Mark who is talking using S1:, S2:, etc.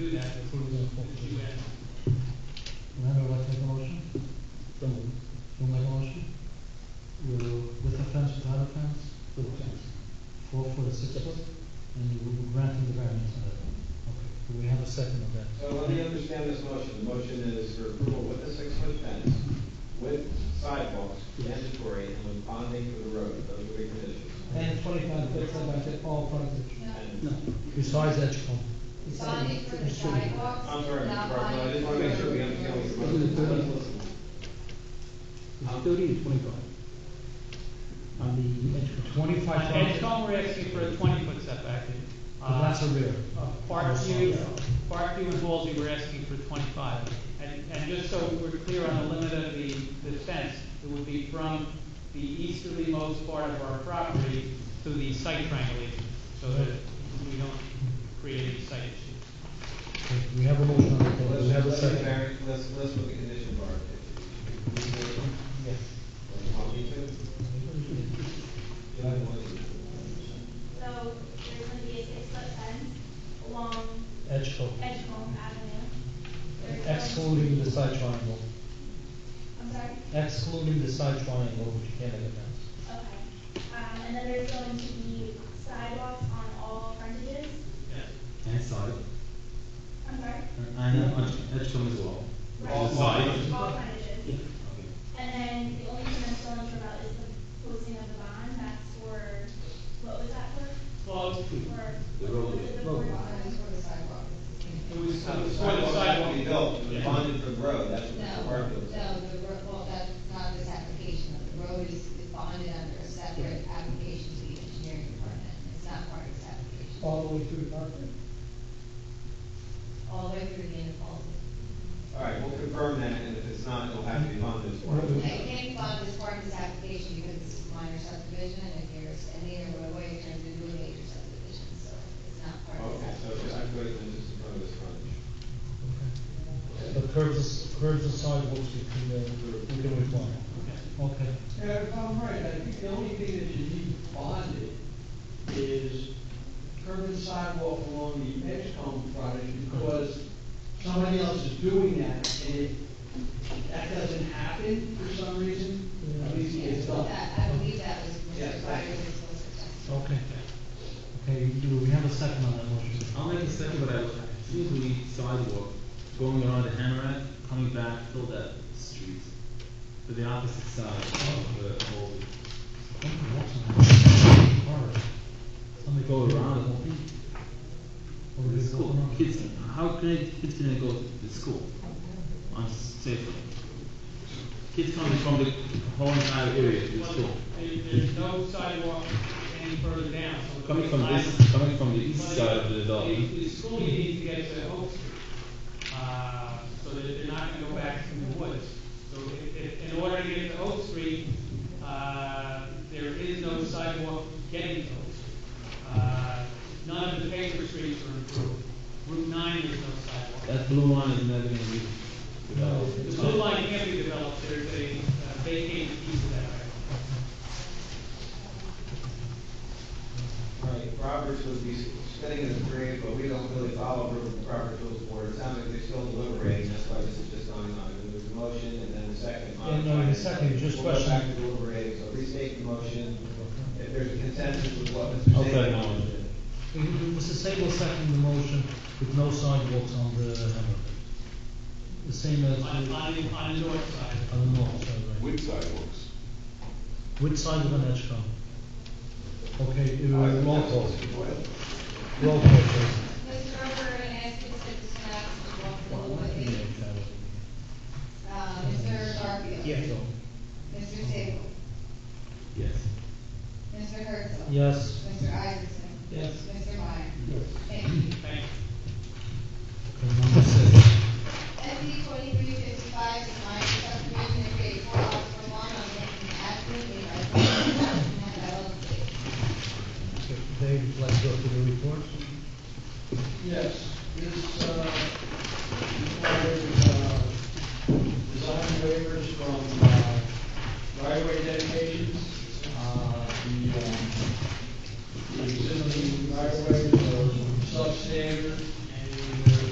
S1: do that if you, if you ask.
S2: Now, do I take a motion?
S3: So moved.
S2: You make a motion? You, with a fence, without a fence?
S3: With a fence.
S2: Four foot or six foot? And you will grant him the variance on that one. Okay, do we have a second on that?
S4: So
S3: uh,
S4: let me understand this motion. The motion is for approval with a six-foot fence, with sidewalks, mandatory, and with bonding for the road. Those are the conditions.
S3: And twenty-five foot setback at all fronts.
S4: And-
S3: No.
S2: Besides that, you come.
S5: Bonding for the sidewalks.
S4: I'm sorry, Mr.
S5: not
S4: Barfield, I
S5: bonding
S4: just want to make
S5: for
S4: sure we
S5: the
S4: understand what
S5: roads.
S4: your motion is.
S3: Isn't it thirty? It's
S4: Let's listen.
S3: thirty and twenty-five. On the edge of
S2: Twenty-five
S1: On
S2: foot,
S1: Edgecombe, we're asking for a twenty-foot setback. Uh,
S2: but that's a rear.
S1: Parkview, Parkview and Halsey, we're asking for twenty-five. And, and just so we're clear on the limit of the, the fence, it would be from the easterly most part of our property to the site triangulation, so that we don't create any site issues.
S2: Okay, We have a motion on the floor, do we have a
S4: Let's, let's,
S2: second?
S4: Mary, let's, let's put the condition bar.
S2: Yes.
S4: Want me to? You don't want to.
S6: So there's gonna be a six-foot fence along
S2: Edge coat,
S6: Edgecombe Avenue. There's going-
S2: excluding the side triangle,
S6: I'm sorry?
S2: excluding the side triangle, which you can't make a fence.
S6: Okay. Um, and then there's going to be sidewalks on all frontages.
S7: And side,
S6: I'm sorry?
S7: and uh, on Edgecombe as well.
S6: Right.
S7: All sides.
S6: All frontages. And then the only thing I'm still unsure about is the posting of the bond. That's for, what was that for?
S1: Well,
S6: For.
S7: The roadway.
S6: was it The board bond?
S1: it was, it
S4: The
S1: was for the
S4: sidewalks have to be
S1: sidewalk.
S4: built, the bonded for the road, that's what Mr.
S5: No,
S4: Barfield said.
S5: no, the road, well, that's not this application, the road is is bonded under a separate application to the engineering department, it's not part of this application.
S3: All the way through the park.
S5: All the way through the end of Halsey.
S4: All right, we'll confirm that, and if it's not, it'll have to be bonded. as part of
S2: Right.
S4: it.
S5: I can't bond this part of this application because this is minor subdivision, and if there's any other roadway, it turns into a major subdivision, so it's not part of
S4: Okay,
S5: this.
S4: so just, I'm going to, just in front of this frontage.
S2: The curbs, curbs and sidewalks, we can, uh, we can require. Okay.
S8: Yeah, if I'm right, I think the only thing that you need bonded is curb and sidewalk along the Edgecombe project, because somebody else is doing that, and if that doesn't happen for some reason, at least it's
S5: Yeah,
S8: done.
S5: that- I believe that was
S8: Yes,
S5: Mr.
S8: I-
S5: Byer's solicitor.
S2: Okay. Okay, do we have a second on that motion?
S7: I'll make a second, but I think we sidewalk going around the Hammerat, coming back, fill that street to the opposite side of the whole.
S2: Okay, that's all right.
S7: Somebody go around the whole thing.
S2: Or we
S7: The
S2: just go
S7: school,
S2: around.
S7: kids, how can I, kids can go to the school on safer? Kids coming from the whole entire area to the school.
S1: There- There's no sidewalk any further down, so. the
S7: Coming from
S1: sidewalk-
S7: this, coming from the east side of the
S1: The,
S7: development.
S1: the school you need to get to Oak Street, uh, so that they're not gonna go back to the woods. So if, if, in order to get to Oak Street, uh, there is no sidewalk getting to Oak Street. Uh, none of the paper streets are improved. Route nine, there's no sidewalk.
S7: That blue line is never gonna be developed.
S1: The blue line can't be developed, there's a uh, vacated piece of that right.
S4: All right, Roberts would be spinning his grave, but we don't really follow rules of the property rules board. It sounds like they're still deliberating, that's why this is just going on. There was a motion and then a second.
S2: Yeah, no, uh, the second, just
S4: We'll go back
S2: question.
S4: to deliberating, so restate the motion. If there's a consensus with what Mr. Zabel.
S7: Okay, no.
S2: We- we- Mr. Sable seconded the motion with no sidewalks on the hammerhead. The same as
S1: On,
S2: on
S1: on, the- on the north side.
S2: the north side, right?
S9: With sidewalks.
S2: Which side of the edge come? Okay, uh,
S4: All right,
S2: roll
S4: that's
S2: call,
S4: Mr. Boyle.
S2: roll call, please.
S5: Mr. Gerber, I ask you to sit down, Mr. Walker,
S2: Yeah, Charlie.
S5: Uh, Mr. Barfield.
S2: So,
S5: Mr. Sable.
S7: Yes.
S5: Mr. Herzl.
S2: Yes,
S5: Mr. Isaacson.
S8: Yes.
S5: Mr. Meyer. Thank you.
S1: Thank you.
S2: okay, number six.
S5: SC twenty-three fifty-five is my subdivision that creates four lots for one on Lincoln Avenue. They are one lot and have LLC.
S2: Okay, Dave, would you like to go through the report?
S8: Yes, this, uh, required, uh, design waivers from, uh, right-of-way dedications, uh, the, um, the existing right-of-ways are substandard, and uh, they're